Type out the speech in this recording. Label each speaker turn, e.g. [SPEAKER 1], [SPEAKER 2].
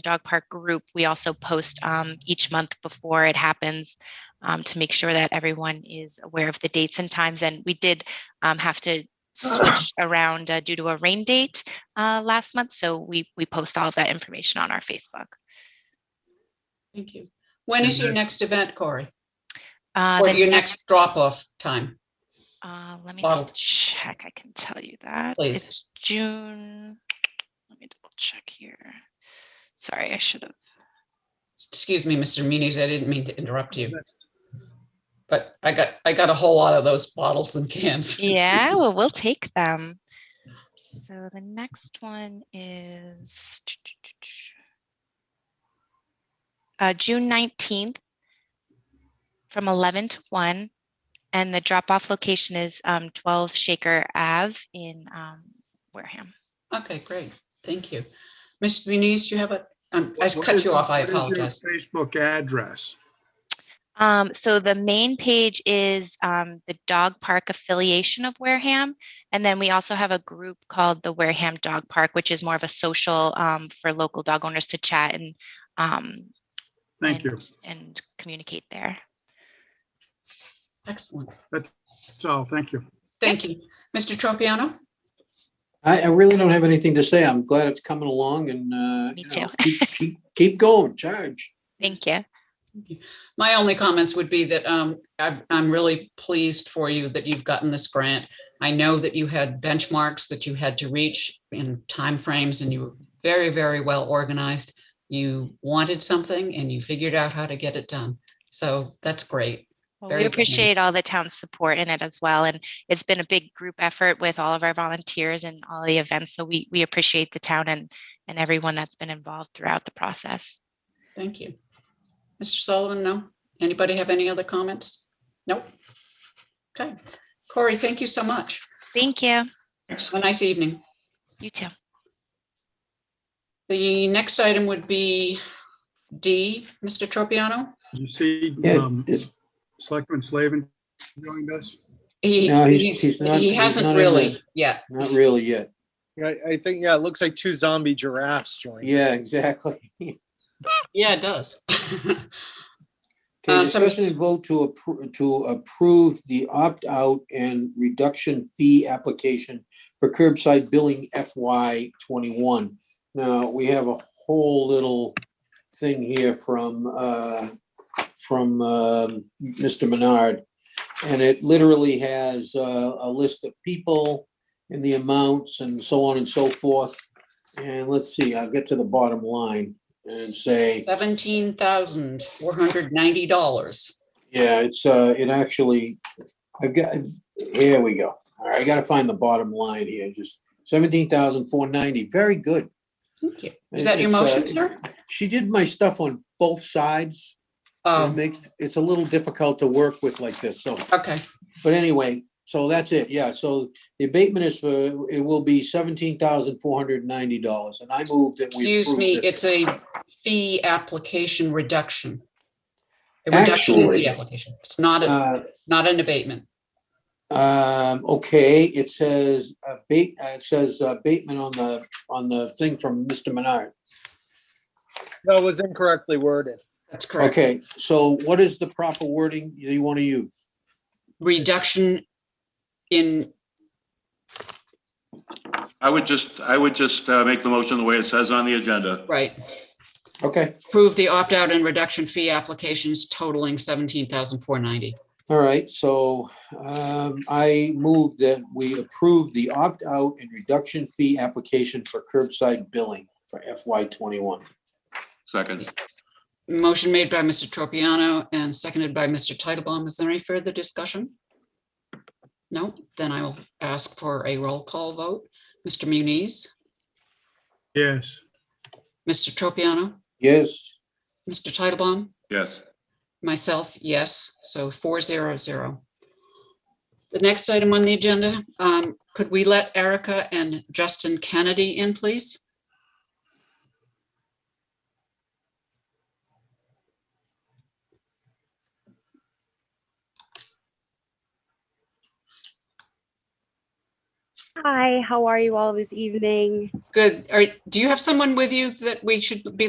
[SPEAKER 1] the dog park group, we also post um, each month before it happens um, to make sure that everyone is aware of the dates and times. And we did um, have to switch around uh, due to a rain date uh, last month. So we, we post all of that information on our Facebook.
[SPEAKER 2] Thank you. When is your next event, Corey?
[SPEAKER 1] Uh,
[SPEAKER 2] Or
[SPEAKER 1] the
[SPEAKER 2] your next drop-off time?
[SPEAKER 1] Uh, let me
[SPEAKER 2] Bottle.
[SPEAKER 1] double check. I can tell you that
[SPEAKER 2] Please.
[SPEAKER 1] it's June. Let me double check here. Sorry, I should have.
[SPEAKER 2] Excuse me, Mr. Muniz, I didn't mean to interrupt you. But I got, I got a whole lot of those bottles and cans.
[SPEAKER 1] Yeah, well, we'll take them. So the next one is uh, June nineteenth from eleven to one, and the drop-off location is um, twelve Shaker Ave in um, Wareham.
[SPEAKER 2] Okay, great. Thank you. Mr. Muniz, you have a, um, I
[SPEAKER 3] What
[SPEAKER 2] cut
[SPEAKER 3] is
[SPEAKER 2] you
[SPEAKER 3] your-
[SPEAKER 2] off. I
[SPEAKER 3] what is your
[SPEAKER 2] apologize.
[SPEAKER 3] Facebook address.
[SPEAKER 1] Um, so the main page is um, the dog park affiliation of Wareham. And then we also have a group called the Wareham Dog Park, which is more of a social um, for local dog owners to chat and um,
[SPEAKER 3] Thank you.
[SPEAKER 1] and- and communicate there.
[SPEAKER 2] Excellent.
[SPEAKER 3] That's all. Thank you.
[SPEAKER 2] Thank you. Mr. Tropiano?
[SPEAKER 4] I, I really don't have anything to say. I'm glad it's coming along and, uh.
[SPEAKER 1] Me
[SPEAKER 4] you know, keep- Keep, keep going, charge.
[SPEAKER 1] Thank you.
[SPEAKER 2] My only comments would be that um, I'm I'm really pleased for you that you've gotten this grant. I know that you had benchmarks that you had to reach in timeframes and you were very, very well organized. You wanted something and you figured out how to get it done. So that's great.
[SPEAKER 1] Well,
[SPEAKER 2] Very
[SPEAKER 1] we
[SPEAKER 2] good.
[SPEAKER 1] appreciate all the town's support in it as well. And it's been a big group effort with all of our volunteers and all the events. So we, we appreciate the town and, and everyone that's been involved throughout the process.
[SPEAKER 2] Thank you. Mr. Sullivan, no? Anybody have any other comments? Nope. Okay. Corey, thank you so much.
[SPEAKER 1] Thank you.
[SPEAKER 2] Have a nice evening.
[SPEAKER 1] You too.
[SPEAKER 2] The next item would be D, Mr. Tropiano.
[SPEAKER 3] You see,
[SPEAKER 4] Yeah,
[SPEAKER 3] um,
[SPEAKER 4] it's-
[SPEAKER 3] Selectman Slavin joined us.
[SPEAKER 2] He,
[SPEAKER 4] No, he's-
[SPEAKER 2] he's-
[SPEAKER 4] he's not-
[SPEAKER 2] he
[SPEAKER 4] he's
[SPEAKER 2] hasn't
[SPEAKER 4] not in
[SPEAKER 2] really
[SPEAKER 4] this.
[SPEAKER 2] yet.
[SPEAKER 4] not really yet.
[SPEAKER 5] Yeah, I think, yeah, it looks like two zombie giraffes joined.
[SPEAKER 4] Yeah, exactly.
[SPEAKER 2] Yeah, it does.
[SPEAKER 4] Okay,
[SPEAKER 2] Uh, so Ms-
[SPEAKER 4] discussion and vote to approve, to approve the opt-out and reduction fee application for curbside billing FY twenty-one. Now, we have a whole little thing here from, uh, from, um, Mr. Menard. And it literally has, uh, a list of people and the amounts and so on and so forth. And let's see, I'll get to the bottom line and say.
[SPEAKER 2] Seventeen thousand four hundred ninety dollars.
[SPEAKER 4] Yeah, it's, uh, it actually, I've got, here we go. All right, I gotta find the bottom line here, just seventeen thousand four ninety, very good.
[SPEAKER 2] Is that your
[SPEAKER 4] If, uh,
[SPEAKER 2] motion, sir?
[SPEAKER 4] She did my stuff on both sides. It
[SPEAKER 2] Oh,
[SPEAKER 4] makes, it's a little difficult to work with like this, so,
[SPEAKER 2] okay,
[SPEAKER 4] but anyway, so that's it, yeah, so the abatement is for, it will be seventeen thousand four hundred ninety dollars, and I move that we.
[SPEAKER 2] excuse
[SPEAKER 4] approve
[SPEAKER 2] me,
[SPEAKER 4] it.
[SPEAKER 2] it's a fee application reduction. A reduction in the
[SPEAKER 4] Actually,
[SPEAKER 2] fee application. It's not, a
[SPEAKER 4] Uh,
[SPEAKER 2] not an abatement.
[SPEAKER 4] Um, okay, it says, uh, Bate, uh, it says uh, Bateman on the, on the thing from Mr. Menard.
[SPEAKER 5] No, it was incorrectly worded.
[SPEAKER 2] That's correct.
[SPEAKER 4] Okay, so what is the proper wording that you want to use?
[SPEAKER 2] Reduction in,
[SPEAKER 6] I would just, I would just uh, make the motion the way it says on the agenda.
[SPEAKER 2] right,
[SPEAKER 4] Okay,
[SPEAKER 2] approve the opt-out and reduction fee applications totaling seventeen thousand four ninety.
[SPEAKER 4] all right, so, um, I move that we approve the opt-out and reduction fee application for curbside billing for FY twenty-one.
[SPEAKER 6] Second,
[SPEAKER 2] Motion made by Mr. Tropiano and seconded by Mr. Titlebaum. Is there any further discussion? No, then I will ask for a roll call vote. Mr. Muniz,
[SPEAKER 3] Yes.
[SPEAKER 2] Mr. Tropiano,
[SPEAKER 4] Yes,
[SPEAKER 2] Mr. Titlebaum,
[SPEAKER 6] yes.
[SPEAKER 2] myself, yes, so four zero zero. The next item on the agenda, um, could we let Erica and Justin Kennedy in, please?
[SPEAKER 7] Hi, how are you all this evening?
[SPEAKER 2] Good. All right, do you have someone with you that we should be